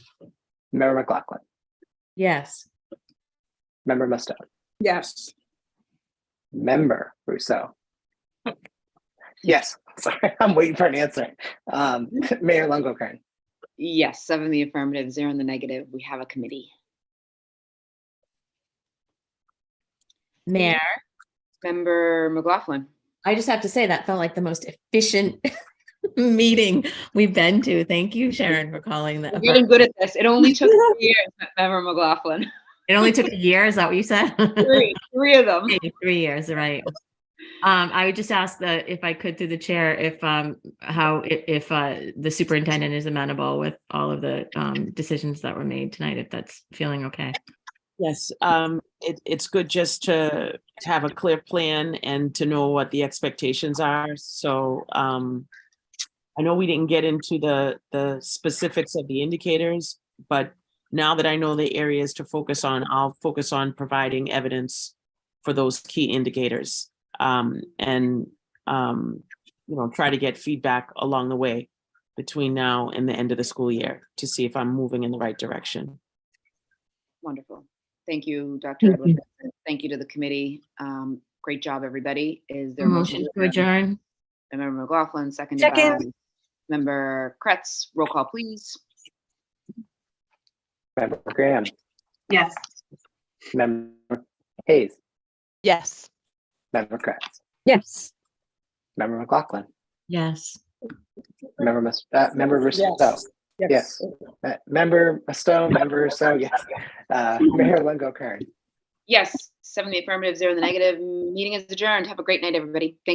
Member McLaughlin, Yes. Member Musto, Yes. Member Rousseau. Yes, sorry, I'm waiting for an answer. Um, Mayor Longo Kern, Yes, seven in the affirmative, zero in the negative. We have a committee. Mayor, Member McLaughlin. I just have to say that felt like the most efficient meeting we've been to. Thank you, Sharon, for calling that. We're getting good at this. It only took three years, Member McLaughlin. It only took a year, is that what you said? Three, three of them. Three- Three years, right. Um, I would just ask that if I could through the chair, if, um, how, if, if, uh, the superintendent is amenable with all of the, um, decisions that were made tonight, if that's feeling okay. Yes, um, it, it's good just to to have a clear plan and to know what the expectations are, so, um, I know we didn't get into the, the specifics of the indicators, but now that I know the areas to focus on, I'll focus on providing evidence for those key indicators, um, and, um, you know, try to get feedback along the way between now and the end of the school year to see if I'm moving in the right direction. Wonderful. Thank you, Dr. Thank you. Edwards. Thank you to the committee. Um, great job, everybody. Is there a Motion Mm-hmm. to adjourn? by Member McLaughlin, seconded by Second. Member Kretz. Roll call, please. Member Graham, Yes. Member Hayes, Yes. Member Kratz, Yes. Member McLaughlin, Yes. Member Mus, uh, Member Rousseau. Yes, Uh, Member Musto, Member Rousseau, yes. Uh, Mayor Longo Kern. Yes, seven in the affirmative, zero in the negative. Meeting is adjourned. Have a great night, everybody. Thank